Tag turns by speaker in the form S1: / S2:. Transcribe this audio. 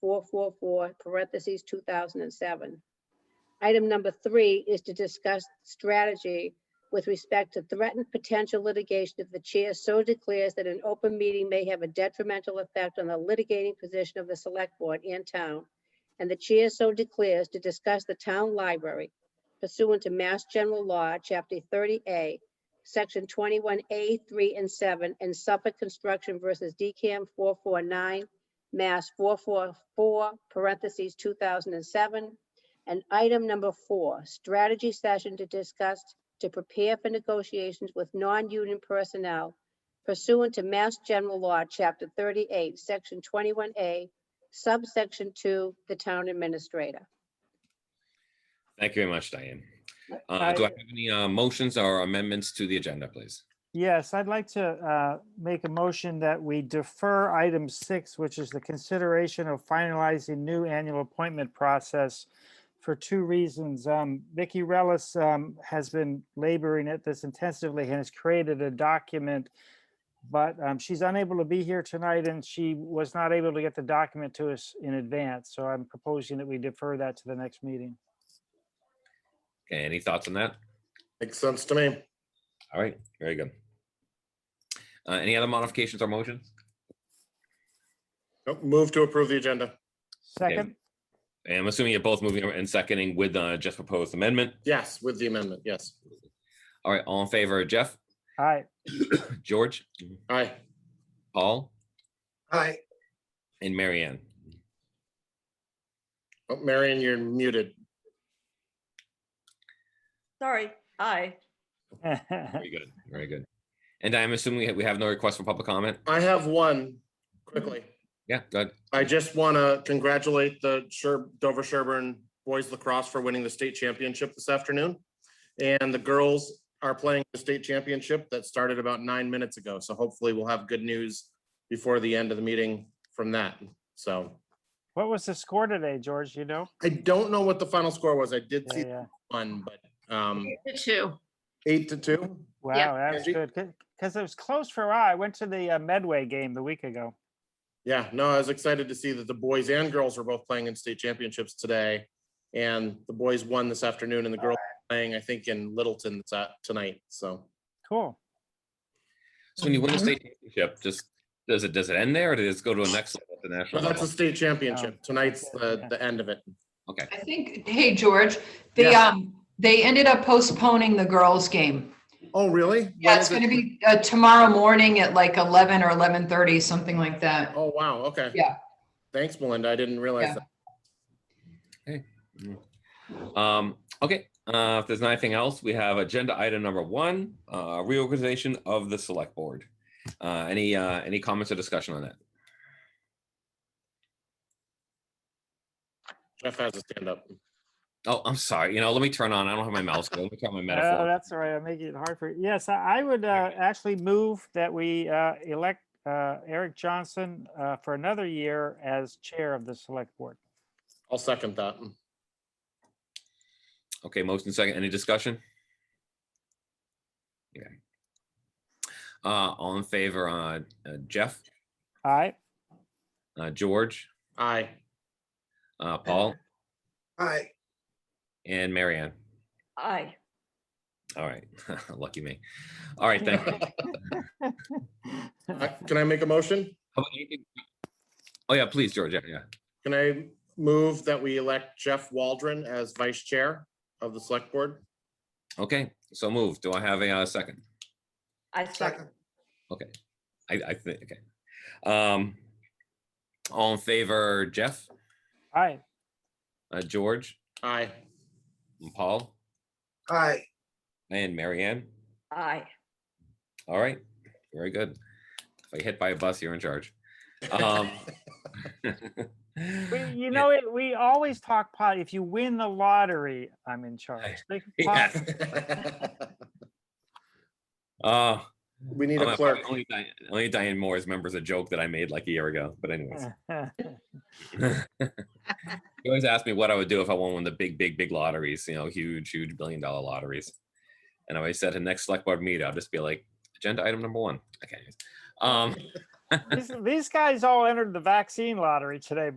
S1: four four four, parentheses, two thousand and seven. Item number three is to discuss strategy with respect to threatened potential litigation if the chair so declares that an open meeting may have a detrimental effect on the litigating position of the select board in town, and the chair so declares to discuss the town library pursuant to Mass General Law, Chapter thirty A, Section twenty-one A, three and seven, and Suffolk Construction versus DCAM four four nine, Mass four four four, parentheses, two thousand and seven. And item number four, strategy session to discuss to prepare for negotiations with non-union personnel pursuant to Mass General Law, Chapter thirty-eight, Section twenty-one A, subsection two, the town administrator.
S2: Thank you very much, Diane. Uh,
S3: I-
S2: do I have any, uh, motions or amendments to the agenda, please?
S3: Yes, I'd like to uh, make a motion that we defer item six, which is the consideration of finalizing new annual appointment process for two reasons. Um, Vicky Relis um, has been laboring at this intensively and has created a document, but um, she's unable to be here tonight and she was not able to get the document to us in advance. So I'm proposing that we defer that to the next meeting.
S2: Okay, any thoughts on that?
S4: Makes sense to me.
S2: All right, very good. Uh, any other modifications or motions?
S4: Nope, Oh, Move to approve the agenda.
S3: Second,
S2: And I'm assuming you're both moving and seconding with, uh, Jeff's proposed amendment.
S4: Yes, with the amendment, yes.
S2: All right, all in favor, Jeff,
S3: aye,
S2: George,
S4: Aye.
S2: Paul,
S5: Aye,
S2: and Mary Ann.
S4: Oh, Marion, you're muted.
S6: Sorry, aye.
S2: Very good, very good. And I'm assuming we ha- we have no request for public comment?
S4: I have one quickly.
S2: Yeah, good.
S4: I just want to congratulate the Sher- Dover Sherburne Boys Lacrosse for winning the state championship this afternoon. And the girls are playing the state championship that started about nine minutes ago. So hopefully we'll have good news before the end of the meeting from that. So
S3: What was the score today, George? You know?
S4: I don't know what the final score was. I did
S3: Yeah,
S4: see
S3: yeah.
S4: one, but um,
S7: Two.
S4: eight to two.
S3: Wow, that was
S4: Angie?
S3: good. Because it was close for I. I went to the uh, Medway game the week ago.
S4: Yeah, no, I was excited to see that the boys and girls were both playing in state championships today. And the boys won this afternoon and the girls are playing, I think, in Littleton this a- tonight. So
S3: Cool.
S2: So when you win the state championship, just, does it, does it end there or does it go to a next level, the
S4: but
S2: national
S4: that's a
S2: level?
S4: state championship. Tonight's the,
S3: yeah.
S4: the end of it.
S2: Okay,
S7: I think, hey, George, they, um, they ended up postponing the girls' game.
S4: Oh, really?
S7: Yeah,
S4: When
S7: it's
S4: is it?
S7: gonna be, uh, tomorrow morning at like eleven or eleven-thirty, something like that.
S4: Oh, wow. Okay.
S7: Yeah.
S4: Thanks, Melinda. I didn't realize
S7: Yeah.
S4: that.
S2: um, okay, uh, if there's nothing else, we have agenda item number one, uh, reorganization of the select board. Uh, any, uh, any comments or discussion on that?
S4: Jeff has a stand up.
S2: Oh, I'm sorry, you know, let me turn on, I don't have my mouse, go, let me turn on my
S3: Oh,
S2: metaphor.
S3: that's all right. I'm making it hard for, yes, I I would uh, actually move that we uh, elect uh, Eric Johnson uh, for another year as chair of the select board.
S4: I'll second that.
S2: Okay, motion second, any discussion? Okay. Uh, all in favor, uh, uh, Jeff,
S3: All right,
S2: uh, George,
S4: Aye.
S2: uh, Paul,
S5: aye,
S2: and Marianne.
S6: Aye.
S2: All right, lucky me. All right, thank you.
S4: I- Can I make a motion?
S2: How about anything- Oh, yeah, please, George, yeah, yeah.
S4: Can I move that we elect Jeff Waldron as vice chair of the select board?
S2: Okay, so move. Do I have a uh, second?
S6: I second.
S5: second,
S2: Okay, I, I think, okay. Um, all in favor, Jeff,
S3: All right,
S2: uh, George,
S4: Aye.
S2: and Paul,
S5: aye,
S2: and Marianne.
S6: Aye.
S2: All right, very good. If I get hit by a bus, you're in charge. Um,
S3: we, you know, it. we always talk pot, if you win the lottery, I'm in charge. They can
S2: Yeah.
S3: pot-
S2: Uh,
S4: We need
S2: I'm
S4: a
S2: not-
S4: clerk.
S2: Only Diane, only Diane Moore is members a joke that I made like a year ago, but anyways. you always ask me what I would do if I won one of the big, big, big lotteries, you know, huge, huge billion dollar lotteries. And I always said to next select board meet, I'll just be like, agenda item number one. Okay. anyways. Um,
S3: These- These guys all entered the vaccine lottery today,